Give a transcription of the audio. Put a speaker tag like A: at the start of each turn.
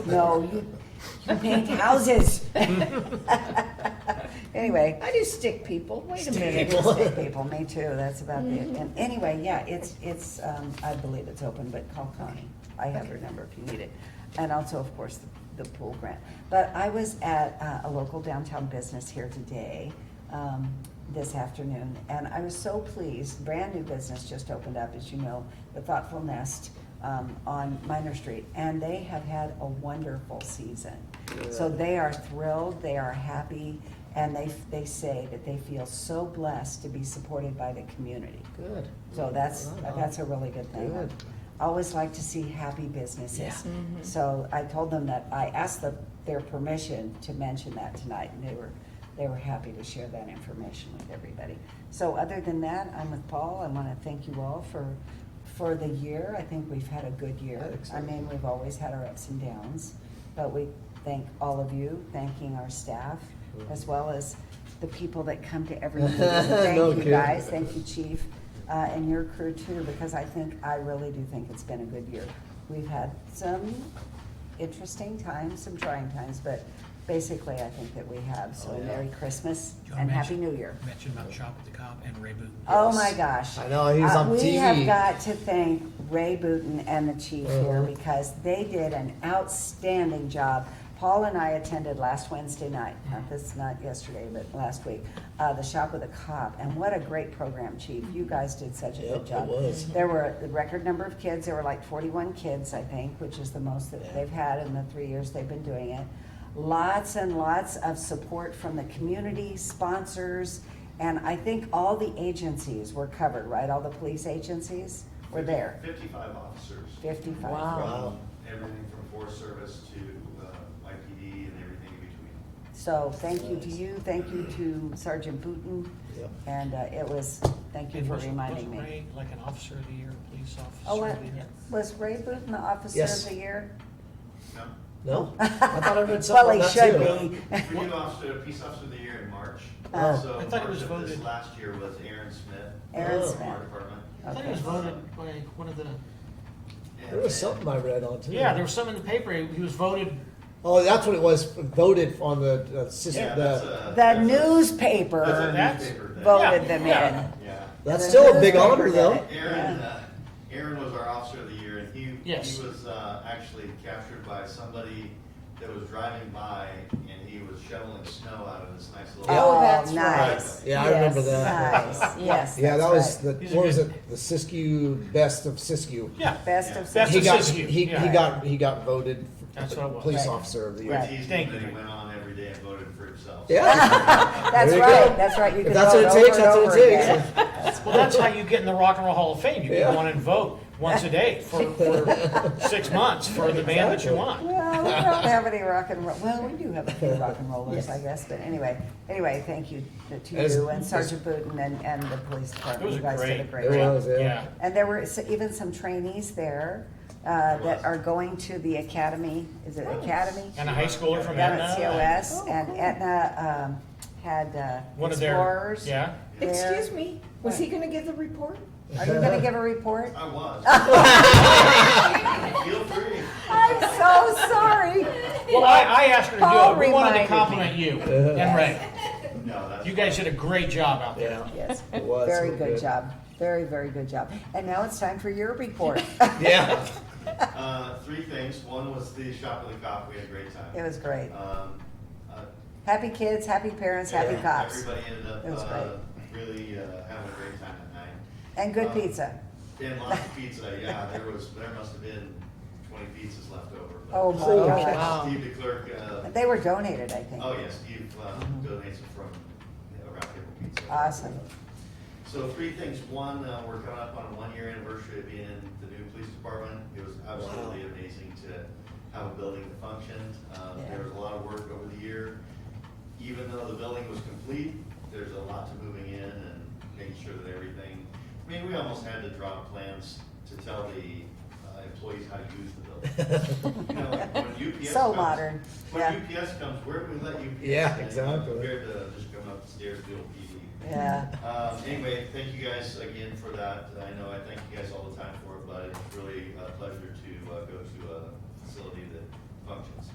A: No, you, you paint houses. Anyway.
B: I do stick people, wait a minute.
A: Stick people, me too, that's about it. And anyway, yeah, it's, it's, um, I believe it's open, but call Connie. I have her number if you need it. And also, of course, the, the pool grant. But I was at uh, a local downtown business here today, um, this afternoon, and I was so pleased. Brand new business just opened up, as you know, the Thoughtful Nest, um, on Minor Street. And they have had a wonderful season. So they are thrilled, they are happy, and they, they say that they feel so blessed to be supported by the community.
B: Good.
A: So that's,
B: Mm-hmm. Wow.
A: that's a really good thing.
B: Good. Mm-hmm.
A: I always like to see happy businesses. So I told them that, I asked them their permission to mention that tonight, and they were, they were happy to share that information with everybody. So other than that, I'm with Paul, I wanna thank you all for, for the year, I think we've had a good year. I
B: Excellent.
A: mean, we've always had our ups and downs, but we thank all of you, thanking our staff, as well as the people that come to every meeting.
B: No
A: Thank you,
B: kidding.
A: guys, thank you, Chief, uh, and your crew too, because I think, I really do think it's been a good year. We've had some interesting times, some trying times, but basically, I think that we have, so
B: Oh, yeah.
A: Merry Christmas
C: Y'all
A: and Happy
C: mentioned-
A: New Year.
C: Mentioned about Shop at the Cop and Ray Boot.
A: Oh
B: Yes.
A: my gosh.
B: I know, he was
A: Uh,
B: on
A: We have
B: TV.
A: got to thank Ray Booton and the chief here
B: Uh-huh.
A: because they did an outstanding job. Paul and I attended last Wednesday night, not this, not yesterday, but last week, uh, the Shop with a Cop. And what a great program, chief. You guys did such a
B: Yep,
A: good
B: it
A: job.
B: was.
A: There were a record number of kids, there were like forty-one kids, I think, which is the most that
B: Yeah.
A: they've had in the three years they've been doing it. Lots and lots of support from the community, sponsors, and I think all the agencies were covered, right? All the police agencies were there,
D: Fifty-five officers.
A: fifty-five.
B: Wow.
D: From Everything from Forest Service to uh, YPD and everything in between.
A: So thank you to
B: Nice.
A: you, thank you to Sergeant Booton,
B: Yep.
A: and uh, it was, thank you
C: And
A: for
C: wasn't-
A: reminding
C: wasn't
A: me.
C: Ray Like an officer of the year, a police
A: Oh,
C: officer
A: uh,
C: of the year?
A: was Ray Booton the Officer of
B: Yes.
A: the Year?
D: No,
B: No? I thought I heard
A: Well,
B: something
A: he
B: about
A: should
B: that too.
A: be.
D: no, we do officer, peace officer of the year in March.
A: Oh.
D: So
C: I thought it was
D: March of this
C: voted.
D: Last year was Aaron Smith.
A: Aaron
D: from
A: Smith.
D: Our department.
C: I think it was voted by one of the,
B: There was something I read on too.
C: yeah, there was some in the paper, he he was voted,
B: Oh, that's what it was, voted on the, uh,
D: Yeah,
B: system,
D: that's
B: the,
D: a.
A: The
D: that's a-
A: newspaper
D: That's
C: That's-
D: a newspaper thing.
A: voted
C: Yeah,
A: them
C: yeah.
A: in.
D: Yeah.
B: that's
A: the
B: still a big
A: newspaper
B: honor
A: did
B: though.
A: it.
D: Aaron,
A: Yeah.
D: uh, Aaron was our officer of the year, and he, he
C: Yes.
D: was uh, actually captured by somebody that was driving by, and he was shoveling snow out of this nice little.
B: Yeah.
A: Oh,
B: Oh,
A: that's
E: that's
A: nice.
B: right. Yeah, I remember
A: Yes,
B: that.
A: Nice, yes.
B: Yeah, that
A: that's
B: was
A: right.
B: the,
C: He's a
B: what was
C: good-
B: it, the Siskiyou, best of Siskiyou.
C: yeah.
A: Best of.
C: Best
B: He
C: of
B: got,
C: Siskiyou,
B: he,
C: yeah.
B: he got, he got voted
C: That's what it was.
B: police
A: Right.
B: officer of the
D: We
B: year.
A: Right.
D: teased
C: Thank
D: him that
C: you.
D: he went on every day and voted for himself.
B: Yeah,
A: That's
B: There you
A: right,
B: go.
A: that's right. You
B: If
A: can
B: that's
A: vote
B: what it
A: over
B: takes,
A: and
B: that's what
A: over
B: it
A: again.
B: takes.
C: Well, that's how you get in the Rock and Roll Hall of Fame, you
B: Yeah.
C: can go on and vote once a day for, for six months for the band that you
B: Exactly.
C: want.
A: Well, we don't have any rock and roll, well, we do have a few rock and rollers,
B: Yes.
A: I guess, but anyway, anyway, thank you to
B: As-
A: you and Sergeant Booton and, and the police department.
C: It was
A: You
C: a
A: guys did a
C: great-
A: great
B: It
A: job.
B: was, yeah.
C: Yeah.
A: And there were s- even some trainees there, uh,
D: There
A: that
D: was.
A: are going to the academy, is it academy?
C: And a high schooler from
A: Down
C: Etna.
A: at COS, and Etna, um, had, uh,
C: Oh, One of their,
A: explorers.
C: yeah.
A: there.
E: Excuse me, was he gonna give the report?
A: Are you gonna give a report?
D: I was. Feel free.
A: I'm so sorry.
C: Well, I, I asked her to
A: Paul
C: do it, we
A: reminded
C: wanted
A: me.
C: to compliment you and Ray.
D: No, that's.
C: You guys did a great job out there.
B: Yeah.
A: Yes,
B: It was
A: very
B: real
A: good
B: good.
A: job. Very, very good job. And now it's time for your report.
B: Yeah.
D: Uh, three things. One was the shop with the cop. We had a great time.
A: It was great.
D: Um, uh,
A: Happy kids, happy parents, happy
D: yeah,
A: cops,
D: Everybody ended up,
A: It was
D: uh, really, uh, having a great time at night.
A: and good
D: Um,
A: pizza.
D: And lots of pizza, yeah, there was, there must have been twenty pizzas left over. but-
A: Oh, my
B: Oh,
A: gosh.
C: wow.
D: Steve the clerk, uh,
A: They were donated, I think.
D: oh, yeah, Steve uh, donates it from uh, Round Table Pizza.
A: Mm-hmm. Awesome.
D: So three things, one, uh, we're coming up on a one-year anniversary of being in the new police department. It was absolutely amazing to have a building that functioned. Um,
A: Yeah.
D: There was a lot of work over the year. Even though the building was complete, there's a lot to moving in and making sure that everything, I mean, we almost had to drop plans to tell the uh, employees how to use the building. You know, like when UPS
A: So
D: comes-
A: modern, yeah.
D: When UPS comes, where do we let UPS?
B: Yeah,
D: in
B: exactly.
D: Compared to just coming up the stairs, to do a PD.
A: Yeah,
D: Um, anyway, thank you guys again for that. I know I thank you guys all the time for it, but it's really a pleasure to uh, go to a facility that functions.